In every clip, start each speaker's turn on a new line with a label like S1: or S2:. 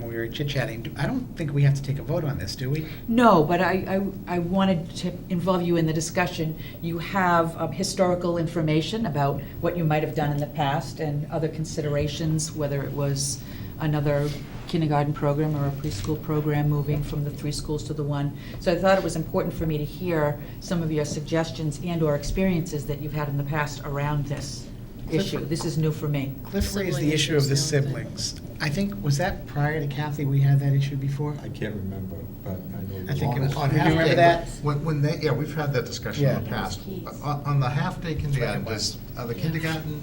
S1: when we were chit-chatting, do- I don't think we have to take a vote on this, do we?
S2: No, but I, I I wanted to involve you in the discussion. You have um, historical information about what you might have done in the past and other considerations, whether it was another kindergarten program or a preschool program moving from the three schools to the one. So I thought it was important for me to hear some of your suggestions and/or experiences that you've had in the past around this issue. This is new for me.
S1: Cliff raised the
S3: Sibling
S1: issue of the
S3: issues, no, I
S1: siblings. I think, was that prior to Kathy, we had that issue before?
S4: I can't remember, but I know.
S1: I think it was on
S4: Long-
S5: Do you
S1: half day.
S5: remember
S1: that?
S5: When, when they, yeah, we've had that discussion in the
S1: Yeah.
S5: past. On, on the half-day kindergarten, does, are the
S3: Yeah.
S5: kindergarten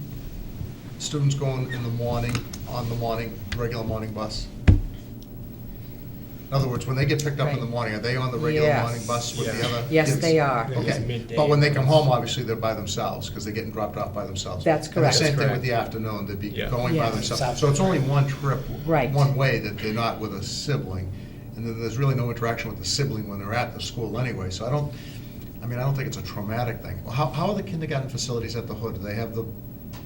S5: students going in the morning, on the morning, regular morning bus? In other words, when they get picked up in the
S2: Right.
S5: morning, are they on the regular
S2: Yes.
S5: morning bus with the
S4: Yeah.
S5: other?
S2: Yes,
S5: kids?
S2: they are.
S4: Yeah. It's
S5: Okay,
S4: midday.
S5: but when they come home, obviously, they're by themselves, because they're getting dropped off by themselves.
S2: That's
S5: And
S2: correct.
S5: the same thing
S4: Correct.
S5: with the afternoon, they'd be
S4: Yeah.
S5: going
S2: Yeah.
S5: by themselves. So it's only one trip.
S2: Right.
S5: One way that they're not with a sibling, and then there's really no interaction with the sibling when they're at the school anyway. So I don't, I mean, I don't think it's a traumatic thing. Well, How, how are the kindergarten facilities at the hood? Do they have the,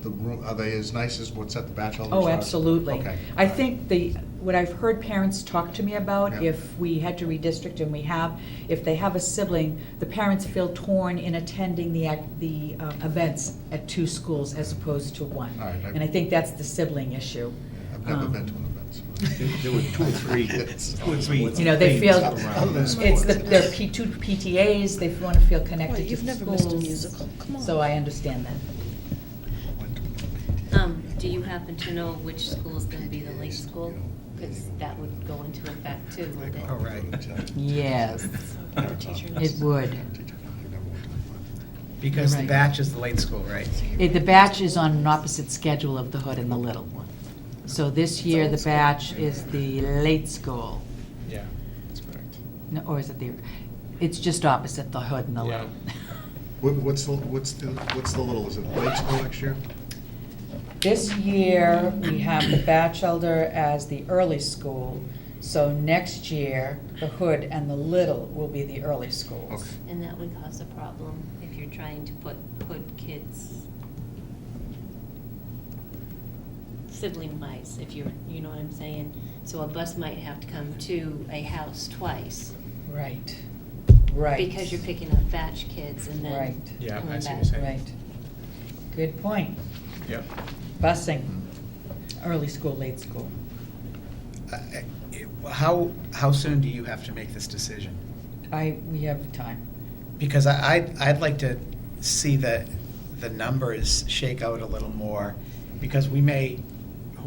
S5: the room, are they as nice as what's at the bachelor's?
S2: Oh, absolutely.
S5: Okay.
S2: I think the, what I've heard parents talk to me about,
S5: Yeah.
S2: if we had to redistrict, and we have, if they have a sibling, the parents feel torn in attending the, ac- the uh, events at two schools as opposed to one.
S5: All right, I-
S2: And I think that's the sibling issue.
S5: I've never
S2: Um,
S5: been to an event.
S4: There there were two or three, two or three.
S2: You know, they feel,
S4: things around
S5: Other
S4: that.
S2: it's the, their P two PTAs, they want to feel connected to
S3: you've
S2: the
S3: never missed a
S2: schools.
S3: musical. Come on.
S2: So I understand that.
S6: Um, do you happen to know which school is gonna be the late school? Because that would go into effect too, wouldn't it?
S4: Oh,
S1: All right.
S2: Yes,
S3: Our teacher
S2: it
S3: knows.
S2: would.
S1: Because the
S2: Right.
S1: batch is the late school, right?
S2: It- Eh, The batch is on an opposite schedule of the hood and the little one. So this year, the
S3: old school.
S2: batch is the late school,
S4: Yeah, that's correct.
S2: No, or is it the, it's just opposite the hood and the little.
S5: What- What's the, what's the, what's the little, is it late school next year?
S2: This year, we have the batch elder as the early school, so next year, the hood and the little will be the early schools.
S5: Okay.
S6: And that would cause a problem if you're trying to put hood kids sibling wise, if you're, you know what I'm saying? So a bus might have to come to a house twice.
S2: Right, right.
S6: Because you're picking up batch kids and then
S2: Right.
S4: Yeah, I
S6: coming
S4: see what
S6: back.
S4: you're saying.
S2: Right. Good point.
S4: Yep.
S2: Busing, early school, late school.
S1: Uh, uh, How, how soon do you have to make this decision?
S2: I, we have time.
S1: Because I, I'd, I'd like to see the, the numbers shake out a little more, because we may,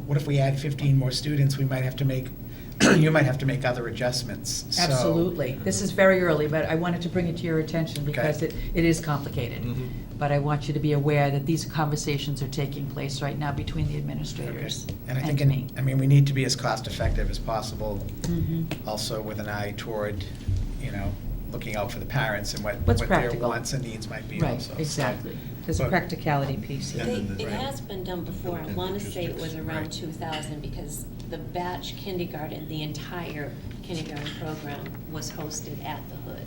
S1: what if we add fifteen more students, we might have to make, you might have to make other adjustments, so.
S2: Absolutely. This is very early, but I wanted to bring it to your attention because it, it is complicated.
S1: Mm.
S5: Mm-hmm.
S4: Mhm.
S2: But I want you to be aware that these conversations are taking place right now between the administrators
S1: Okay. And I think,
S2: and me.
S1: in- I mean, we need to be as cost-effective as possible,
S2: Mhm.
S1: also with an eye toward, you know, looking out for the parents and what, what
S2: What's
S1: their
S2: practical.
S1: wants and needs might be
S2: Right,
S1: also. so.
S2: exactly. There's a
S1: But-
S2: practicality piece here.
S6: They,
S4: then the-
S6: it
S4: Right.
S6: has been done before, I wanna say it was
S1: Right.
S6: around two thousand, because the batch kindergarten, the entire kindergarten program was hosted at the hood.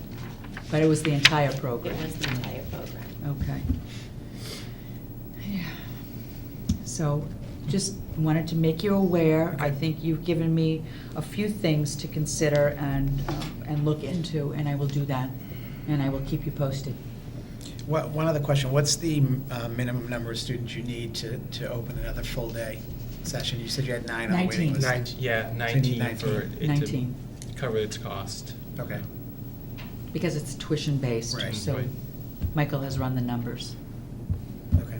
S2: But it was the entire
S6: It
S2: program.
S6: was the entire program.
S2: Okay. Yeah. So, just wanted to make you aware, I think you've given me a few things to consider and, um, and look into, and I will do that, and I will keep you posted.
S1: What, one other question, what's the uh, minimum number of students you need to, to open another full-day session? You said you had nine on the waiting
S2: Nineteen.
S1: list.
S2: Nine.
S4: Nineteen, yeah,
S1: So you need
S4: nineteen for it to
S2: 19,
S4: cover its cost.
S1: Okay,
S2: because it's tuition-based,
S1: Right.
S2: so
S4: Right.
S2: Michael has run the numbers.
S1: okay.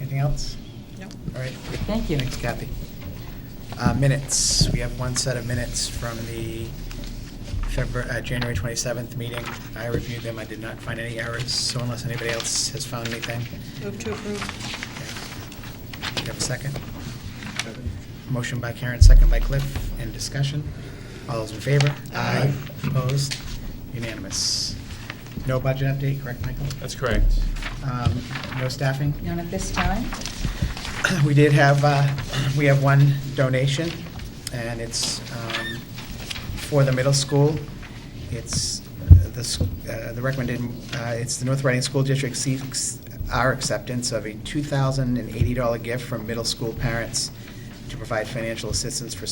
S1: Anything else?
S3: Nope.
S1: All right,
S2: Thank you.
S1: thanks Kathy. Uh, Minutes, we have one set of minutes from the February, uh, January 27th meeting. I reviewed them, I did not find any errors, so unless anybody else has found anything.
S3: Move to approve.
S1: okay. Do you have a second? Motion by Karen, second by Cliff. End discussion. All those in favor?
S3: Aye.
S1: Opposed? Unanimous. No budget update, correct, Michael?
S4: That's correct.
S1: Um, No staffing?
S2: None at this time?
S1: We did have, uh, we have one donation, and it's um, for the middle school. It's uh, the, s- uh, the recommended, uh, it's the North Reading School District seeks our acceptance of a $2,080 gift from middle school parents to provide financial assistance for